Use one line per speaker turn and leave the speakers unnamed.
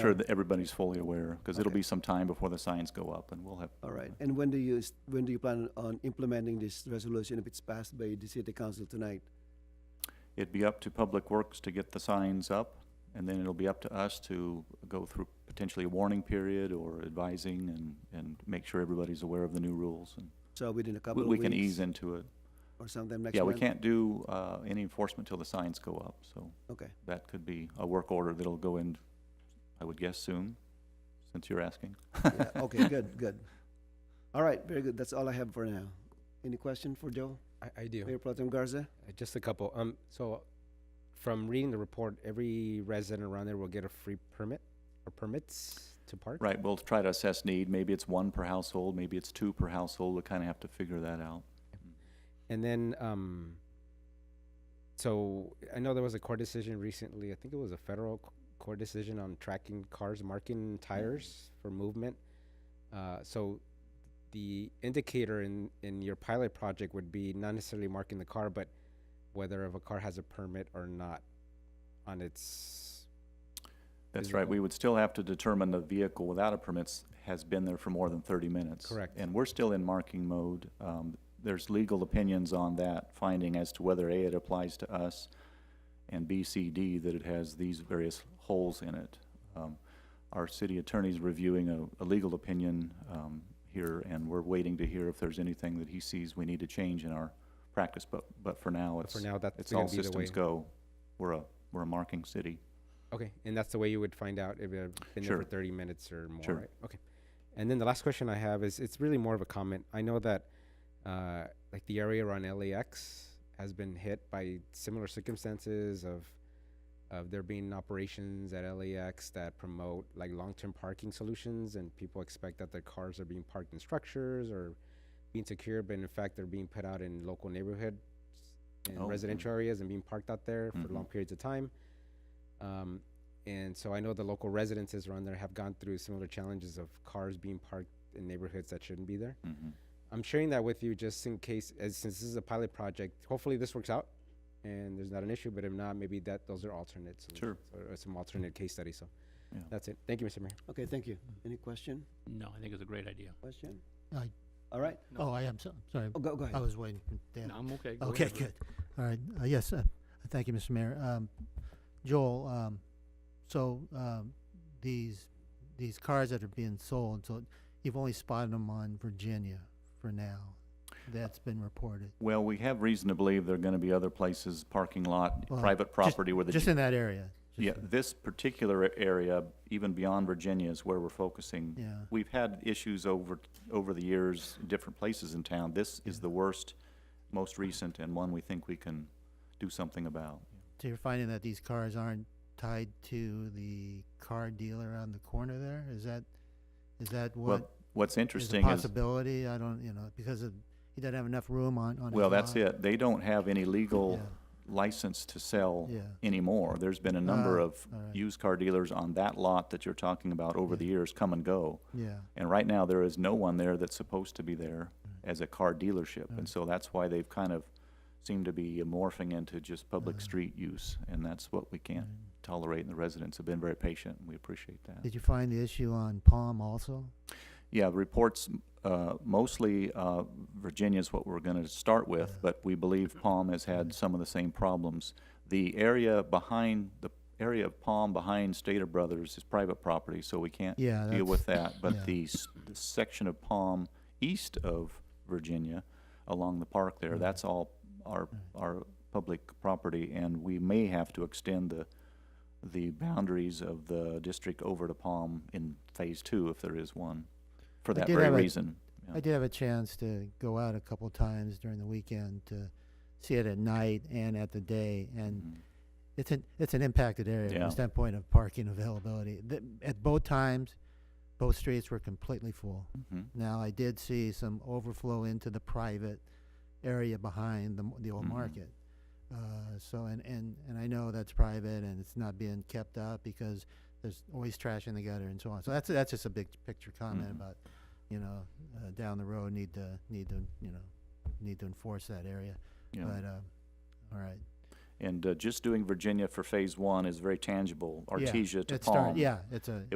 sure that everybody's fully aware, because it'll be some time before the signs go up, and we'll have.
All right, and when do you, s- when do you plan on implementing this resolution if it's passed by the city council tonight?
It'd be up to Public Works to get the signs up, and then it'll be up to us to go through potentially a warning period or advising and, and make sure everybody's aware of the new rules. and
So within a couple
we-
of
We
weeks?
can ease into it.
Or sometime next
Yeah, we
month?
can't do, uh, any enforcement till the signs go up, so
Okay,
that could be a work order that'll go in, I would guess soon, since you're asking.
yeah, okay, good, good. All right, very good, that's all I have for now. Any question for Joe,
I, I do.
Mayor Protem Garza?
Uh, Just a couple. Um, so from reading the report, every resident around there will get a free permit or permits to park.
Right, we'll try to assess need. Maybe it's one per household, maybe it's two per household. We'll kind of have to figure that out.
And then, um, so I know there was a court decision recently. I think it was a federal c- court decision on tracking cars, marking tires for movement. Uh, so the indicator in, in your pilot project would be not necessarily marking the car, but whether if a car has a permit or not on its
That's right, we
Physical.
would still have to determine the vehicle without a permits has been there for more than thirty minutes.
Correct.
And we're still in marking mode. Um, there's legal opinions on that finding as to whether A, it applies to us, and B, C, D, that it has these various holes in it. Um, our city attorney's reviewing a, a legal opinion, um, here, and we're waiting to hear if there's anything that he sees we need to change in our practice, but, but for now,
But
it's,
for now, that's
it's
gonna
all
be the way.
systems go. We're a, we're a marking city.
Okay, and that's the way you would find out if it had been there
Sure.
for thirty minutes or more,
Sure.
right? Okay. And then the last question I have is, it's really more of a comment. I know that, uh, like the area around LAX has been hit by similar circumstances of, of there being operations at LAX that promote like long-term parking solutions and people expect that their cars are being parked in structures or being secured, but in fact, they're being put out in local neighborhoods and
Oh, mm.
residential areas and being parked out there for
Mhm.
long periods of time. Um, and so I know the local residences around there have gone through similar challenges of cars being parked in neighborhoods that shouldn't be there.
Mm-hmm.
I'm sharing that with you just in case, as since this is a pilot project, hopefully this works out and there's not an issue, but if not, maybe that, those are alternate
Sure.
solutions or- or some alternate case studies. So
Yeah.
that's it. Thank you, Mr. Mayor.
Okay, thank you. Any question,
No, I think it's a great idea.
question?
I-
All right,
Oh, I am, so- sorry,
oh, go, go
I
ahead.
was waiting for Dan.
No, I'm okay. Go
Okay,
ahead, Rick.
good. All right, uh, yes, uh, thank you, Mr. Mayor. Um, Joel, um, so, um, these, these cars that are being sold, so you've only spotted them on Virginia for now. That's been reported.
Well, we have reason to believe there are gonna be other places, parking lot,
Well,
private
just-
property where the.
Just in that area. just
Yeah,
in-
this particular area, even beyond Virginia, is where we're focusing.
Yeah.
We've had issues over, over the years, in different places in town. This is the worst, most recent, and one we think we can do something about.
So you're finding that these cars aren't tied to the car dealer on the corner there? Is that, is that
Well,
what
What's
is a
interesting is,
possibility? I don't, you know, because of, he doesn't have enough room on, on his
well, that's
lot.
it. They don't have any legal
Yeah.
license to sell
Yeah.
anymore. There's been a number
Ah,
of
all right.
used car dealers on that lot that you're talking about over the years come and go.
Yeah.
And right now, there is no one there that's supposed to be there
Mm.
as a car dealership. And
Right.
so that's why they've kind of seemed to be morphing into just public
Uh-huh.
street use. And that's what we can't tolerate. And the residents have been very patient, and we appreciate that.
Did you find the issue on Palm also?
Yeah, reports, uh, mostly uh, Virginia's what we're going to start with,
Yeah. Mm-hmm.
but we believe Palm has had some of the same problems. The area behind, the area of Palm behind Stater Brothers is private property, so we can't
Yeah,
deal with that.
yeah.
But the, s- the section of Palm east of Virginia, along the park there,
Mm-hmm.
that's all our, our public property. And we may have to extend the, the boundaries of the district over to Palm in phase two, if there is one, for
I
that
did
very
have a-
reason. Yeah.
I did have a chance to go out a couple times during the weekend to see it at night and at the day, and
Mhm.
it's an it's an impacted area from
Yeah.
the standpoint of parking availability. The, at both times, both streets were completely full.
Mhm.
Now I did see some overflow into the private area behind the m- the old
Mhm.
market. Uh, so and, and and I know that's private and it's not being kept up because there's always trash in the gutter and so on. So that's that's just a big picture comment
Mhm.
about you know uh, down the road need to need to you know need to enforce that area.
Yeah.
But um, all right,
And uh, just doing Virginia for phase one is very tangible.
Yeah,
Artesia to
it start-
Palm.
Yeah, it's a